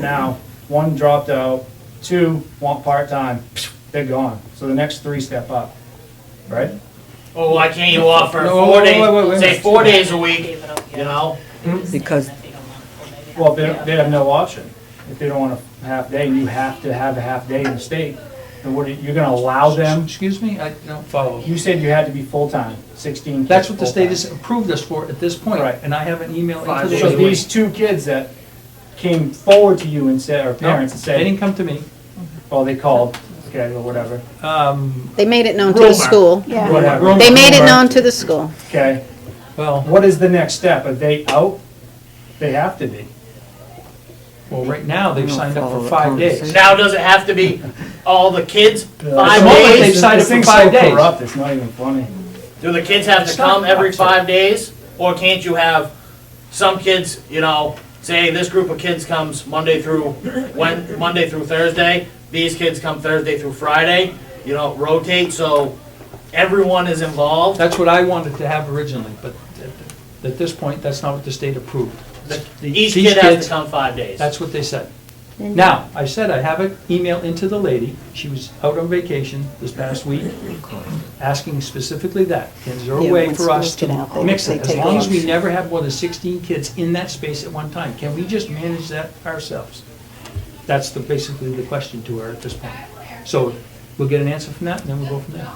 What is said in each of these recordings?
Now, one dropped out, two want part-time, they're gone. So the next three step up, right? Well, Oh, why can't you offer No, four wait, wait, wait, wait. days, say four days a week, you know? Because- Well, they, they have no option. If they don't want a half day, you have to have a half day in the state. And what, are- you're gonna allow them, Excuse me, I don't follow. you said you had to be full-time, sixteen kids That's what the state full-time. has approved us for at this point, Right. and I have an email Five into the. So these two kids that came forward to you and said, or No, parents and They said, didn't come to me. well, they called, okay, or whatever, Um, They made it known to the Rumor. school. Yeah, whatever. They made it known to the school. Okay, Well, what is the next step? Are they out? They have to be. well, right now, they've I don't signed up follow for the five days. conversation. Now, does it have to be all the kids, five the moment days? they've signed This up for thing's five so days. corrupt, it's not even funny. Do the kids have to come every five days? Or can't you have some kids, you know, say this group of kids comes Monday through, when, Monday through Thursday, these kids come Thursday through Friday, you know, rotate, so everyone is involved? That's what I wanted to have originally, but at- at this point, that's not what the state approved. The- These Each kid has kids- to come five days. That's what they said. Now, I said I have an email into the lady, she was out on vacation this past week, asking specifically that, is there a Yeah, way when for us schools get out, to they- mix they it? As take long as we off. never have more than 16 kids in that space at one time, can we just manage that ourselves? That's the, basically the question to her at this point. So we'll get an answer from that, and then we'll go from there.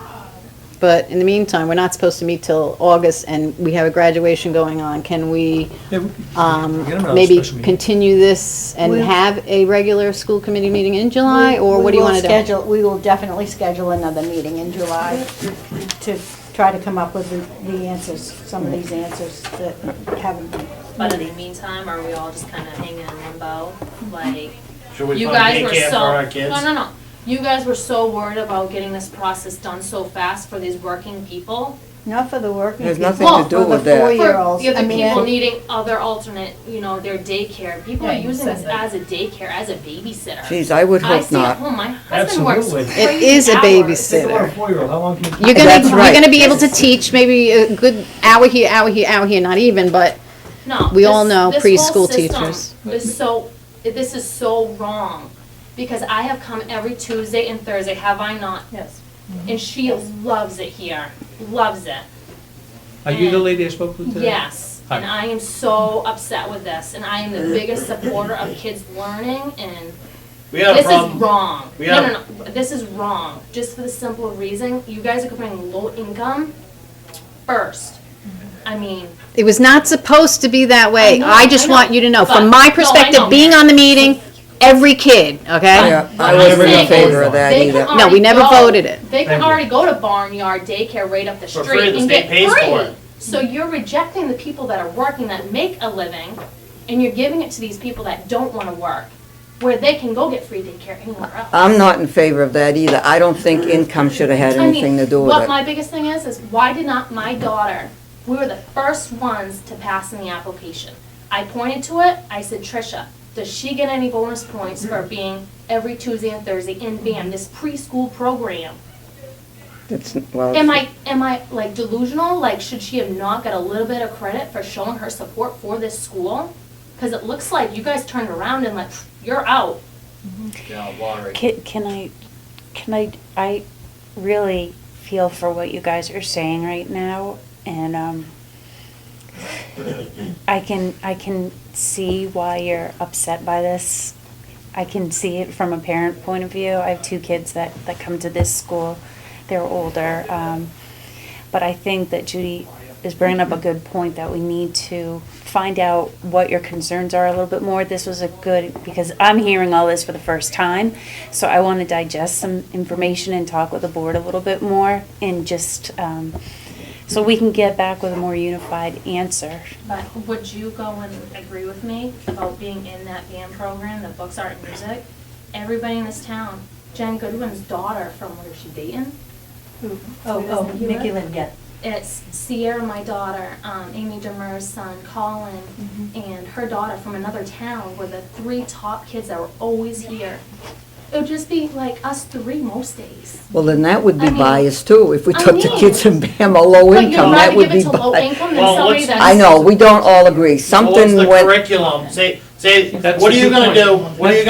But in the meantime, we're not supposed to meet till August, and we have a graduation going on. Can we Yeah, we- um, we'll get another maybe special meeting. continue this and We'll- have a regular school committee meeting in July? Or We- what do you we will want to do? schedule- We will definitely schedule another meeting in July to try to come up with the- the answers, some of these answers that haven't been. But in the meantime, are we all just kind of hanging in limbo? Like, Should we you put a guys were daycare for so, our kids? no, no, no. You guys were so worried about getting this process done so fast for these working people. Not for the working There's people, nothing to for do the with that. For four-year-olds. the I other mean, people I- needing other alternate, you know, their daycare. People are Yeah, you using said this that. as a daycare, as a babysitter. Geez, I would I hope stay at not. home, my husband works Absolutely. It It crazy is a hours. Think about a babysitter. four-year-old, how long can you? You're gonna, That's you're right. gonna be able to teach maybe a good hour here, hour here, hour here, not even, but No. We this- all know this preschool whole system teachers. Is so, this is so wrong, because I have come every Tuesday and Thursday, have I not? Mm-hmm. Yes. And she loves it here, loves it, Are you the lady I spoke with today? yes. Hi. And I am so upset with this, and I am the biggest supporter of kids learning, and We had a this is problem. wrong. We No, had a- no, no, this is wrong, just for the simple reason, you guys are comparing low income first. I mean, It was not supposed to be that way. I know, I just I know, want you to know, but- from my no, I know. perspective, being on the meeting, every kid, okay? Yeah, I What I'm wasn't in saying favor is of that They either. can No, we already never go- voted it. They Thank can you. already go to Barnyard Daycare right up the For street free, the and state get pays for free. it. So you're rejecting the people that are working that make a living, and you're giving it to these people that don't wanna work, where they can go get free daycare anywhere else. I'm not in favor of that either. I don't think income should have had I anything mean, to do with what it. my biggest thing is, is why did not my daughter, we were the first ones to pass in the application. I pointed to it, I said, Trisha, does she get any bonus points for being every Tuesday and Thursday in BAM, this preschool program? It's, well, Am I, am I like delusional? Like, should she have not got a little bit of credit for showing her support for this school? Because it looks like you guys turned around and like, you're out. Yeah, lottery. Can, can I, can I, I really feel for what you guys are saying right now, and, um, I can, I can see why you're upset by this. I can see it from a parent point of view. I have two kids that, that come to this school. They're older. Um, but I think that Judy is bringing up a good point that we need to find out what your concerns are a little bit more. This was a good, because I'm hearing all this for the first time. So I want to digest some information and talk with the board a little bit more and just, um, so we can get back with a more unified answer. But would you go and agree with me about being in that band program, the books, art, and music? Everybody in this town, Jen Goodwin's daughter from, where is she, Dayton? Oh, oh, Nikki Lynn, yeah. It's Sierra, my daughter, um, Amy Demers' son, Colin, and her daughter from another town were the three top kids that were always here. It would just be like us three most days. well, then that would I be mean- biased too, if we I took the mean- kids in Bama low But you'd income, that rather would give be it to low biased. income Well, than somebody what's- that's. I know, we don't all agree, So what's something the went, curriculum? Say, Say, That's what are the you key gonna point. do? What are you